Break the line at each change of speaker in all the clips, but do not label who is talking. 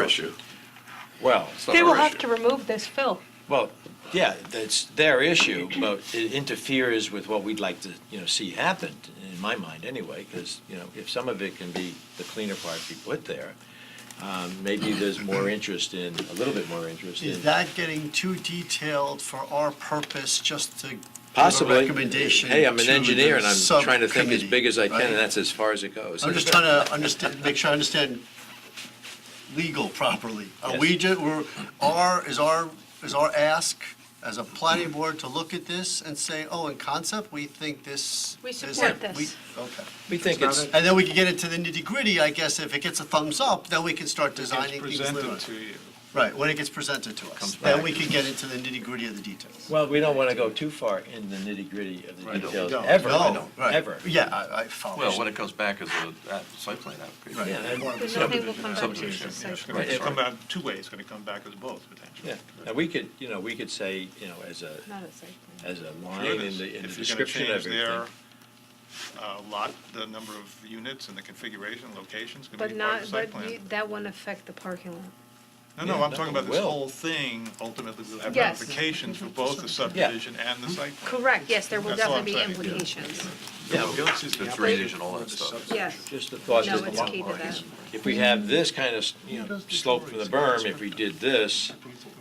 issue.
Well,
It's not
They will
our
have
issue.
to remove this fill.
well, yeah, that's their issue, but it interferes with what we'd like to, you know, see happen, in my mind anyway, because, you know, if some of it can be, the cleaner part be put there, um, maybe there's more interest in, a little bit more interest in.
Is that getting too detailed for our purpose, just to give a
Possibly.
recommendation?
Hey, I'm an
to the
engineer, and I'm trying to think as
subcommittee,
big as I can,
right?
and that's as far as it goes.
I'm just trying to understand, make sure I understand legal properly. Are
Yes.
we ju, we're, our, is our, is our ask as a planning board to look at this and say, oh, in concept, we think this.
We
this-
support
we-
this.
Okay.
We think it's,
And then we can get into the nitty gritty, I guess, if it gets a thumbs up, then we can start designing things
presented
later.
to you.
Right, when it gets presented to us,
Comes
then
back.
we can get into the nitty gritty of the details.
well, we don't want to go too far in the nitty-gritty of the
We
details,
don't.
ever,
No, right.
ever.
Yeah, I, I follow.
Well, when it comes back as a uh, site plan
Right.
application.
Yeah, and-
The zoning will come back to
Subdivision,
the
yeah,
site
It's
sure.
plan.
going to
Right.
come back two ways, it's going to come back as both, potentially.
Yeah, now we could, you know, we could say, you know, as a,
Not a site plan.
as a
Sure
line
it
in
is.
the, in the
If you're going to
description of
change
everything.
their uh, lot, the number of units and the configuration, locations, going
But
to be part
not,
of the site
but
plan.
you- that won't affect the parking lot.
No, no,
Yeah,
I'm talking about this
will.
whole thing ultimately will have
Yes.
ramifications for both the subdivision and the site plan.
Correct, yes, there will
That's all I'm
definitely be
saying, yeah.
implications.
Yeah,
The drainage and all that stuff.
Yes,
just the thought,
no,
just
it's key
the
to that.
if we have this kind of, you know, slope from the berm, if we did this,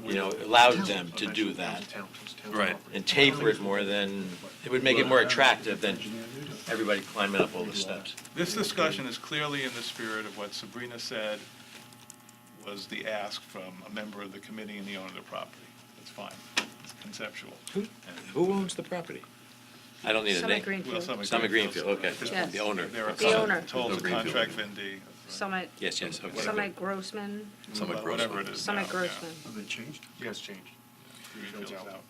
you know, allowed them to do that
Right.
and taper it more than, it would make it more attractive than everybody climbing up all the steps.
This discussion is clearly in the spirit of what Sabrina said was the ask from a member of the committee and the owner of the property. It's fine, it's conceptual.
Who, who owns the property? I don't need a
Summit
name.
Well,
Greenfield,
Summit Greenfield, okay,
Yes.
the owner.
They're a
The owner.
told the contract vendee.
Summit,
Yes, yes, okay.
Summit Grossman,
Summit
Whatever
Grossman.
it is now,
Summit
yeah.
Grossman.
Have they changed?
Yes, changed.
Greenfield's out.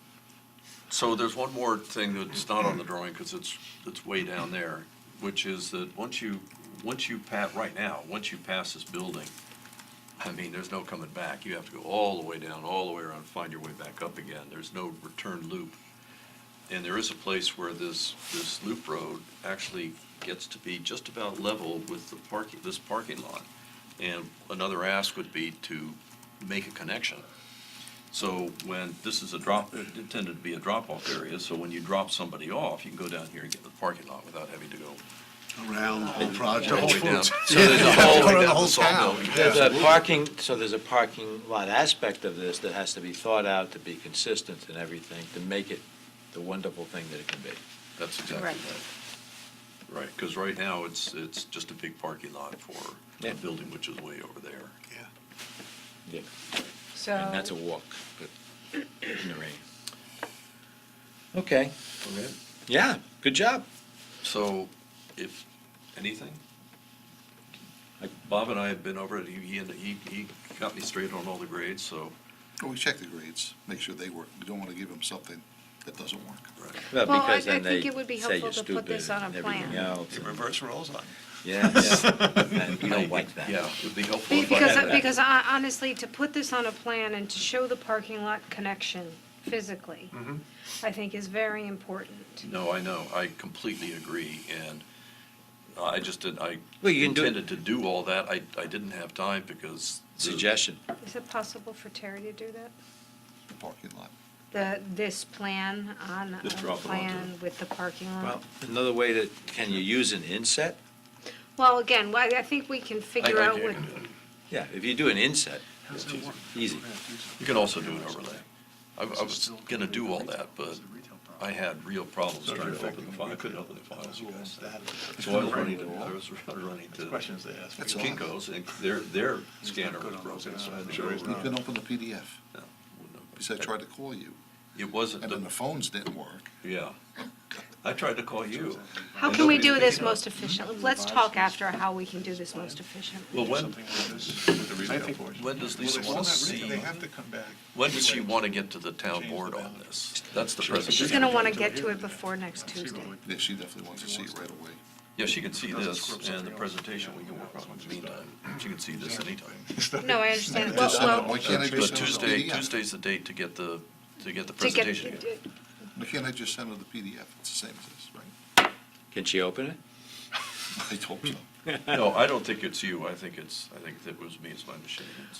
So there's one more thing that's not on the drawing, because it's, it's way down there, which is that once you, once you pat, right now, once you pass this building, I mean, there's no coming back. You have to go all the way down, all the way around, find your way back up again. There's no return loop. And there is a place where this, this loop road actually gets to be just about level with the parking, this parking lot. And another ask would be to make a connection. So when, this is a drop, intended to be a drop-off area, so when you drop somebody off, you can go down here and get to the parking lot without having to go
Around the whole
all the way
project.
down. So there's a whole way
Around the
down
whole
the sawmill.
town.
There's a parking, so there's a parking lot aspect of this that has to be thought out to be consistent and everything, to make it the wonderful thing that it can be.
That's exactly
Correct.
right. Right, because right now, it's, it's just a big parking lot for
Yeah.
a building which is way over there.
Yeah.
So.
And that's a walk, but in the rain. Okay,
Okay.
yeah, good job.
So if, anything? Bob and I have been over it, he, he, he he got me straight on all the grades, so.
Well, we check the grades, make sure they work. We don't want to give them something that doesn't work.
Well,
Well, I-
because then
I think
they
it would be
say you're
helpful to
stupid
put this on a
and everything
plan.
else.
It reverse roles on.
Yeah, yeah. And we don't like that.
Yeah, it'd be helpful.
Be-
if I
Because,
had that.
because hon- honestly, to put this on a plan and to show the parking lot connection physically,
Mm-hmm.
I think is very important.
No, I know, I completely agree, and I just did, I
Well, you can do it-
intended to do all that, I, I didn't have time because. the-
Suggestion,
Is it possible for Terry to do that?
The parking lot.
The, this plan on a
Just drop it onto
plan with the parking
well,
lot?
another way to, can you use an inset?
Well, again, why- I think we can
I- I
figure out
can
what,
do it.
Yeah, if you do an inset,
How's that work?
easy.
You can also do an overlay. I, I was gonna do all that, but I had real problems trying to open the file, I couldn't open the files, you guys. So I was running to, I was running to
Questions they ask.
That's all.
Kinko's, and their, their scanner was broken, so I had to go.
You can open the PDF.
No, no.
Because I tried to call you,
It wasn't,
and then the
the-
phones didn't work.
yeah. I tried to call you.
how can we do this most efficiently? Let's talk after how we can do this most efficiently.
Well, when,
I think
when does
Well,
Lisa
it's
want to
not
see,
written, They have to come back.
when does she want to get to the town board on this? That's the
She's
presentation.
gonna wanna get to it before next Tuesday.
Yeah, she definitely wants to see it right away.
Yeah, she can see this, and the presentation we can work on in the meantime. She can see this anytime.
No, I understand. Well,
Just-
well,
Why can't I
But
just send her the
Tuesday,
PDF?
Tuesday's the date to get the, to get the
to get,
presentation. again.
Why can't I just send her the PDF? It's the same as this, right?
Can she open it?
I told you.
No, I don't think it's you. I think it's, I think that was me, it's my machine.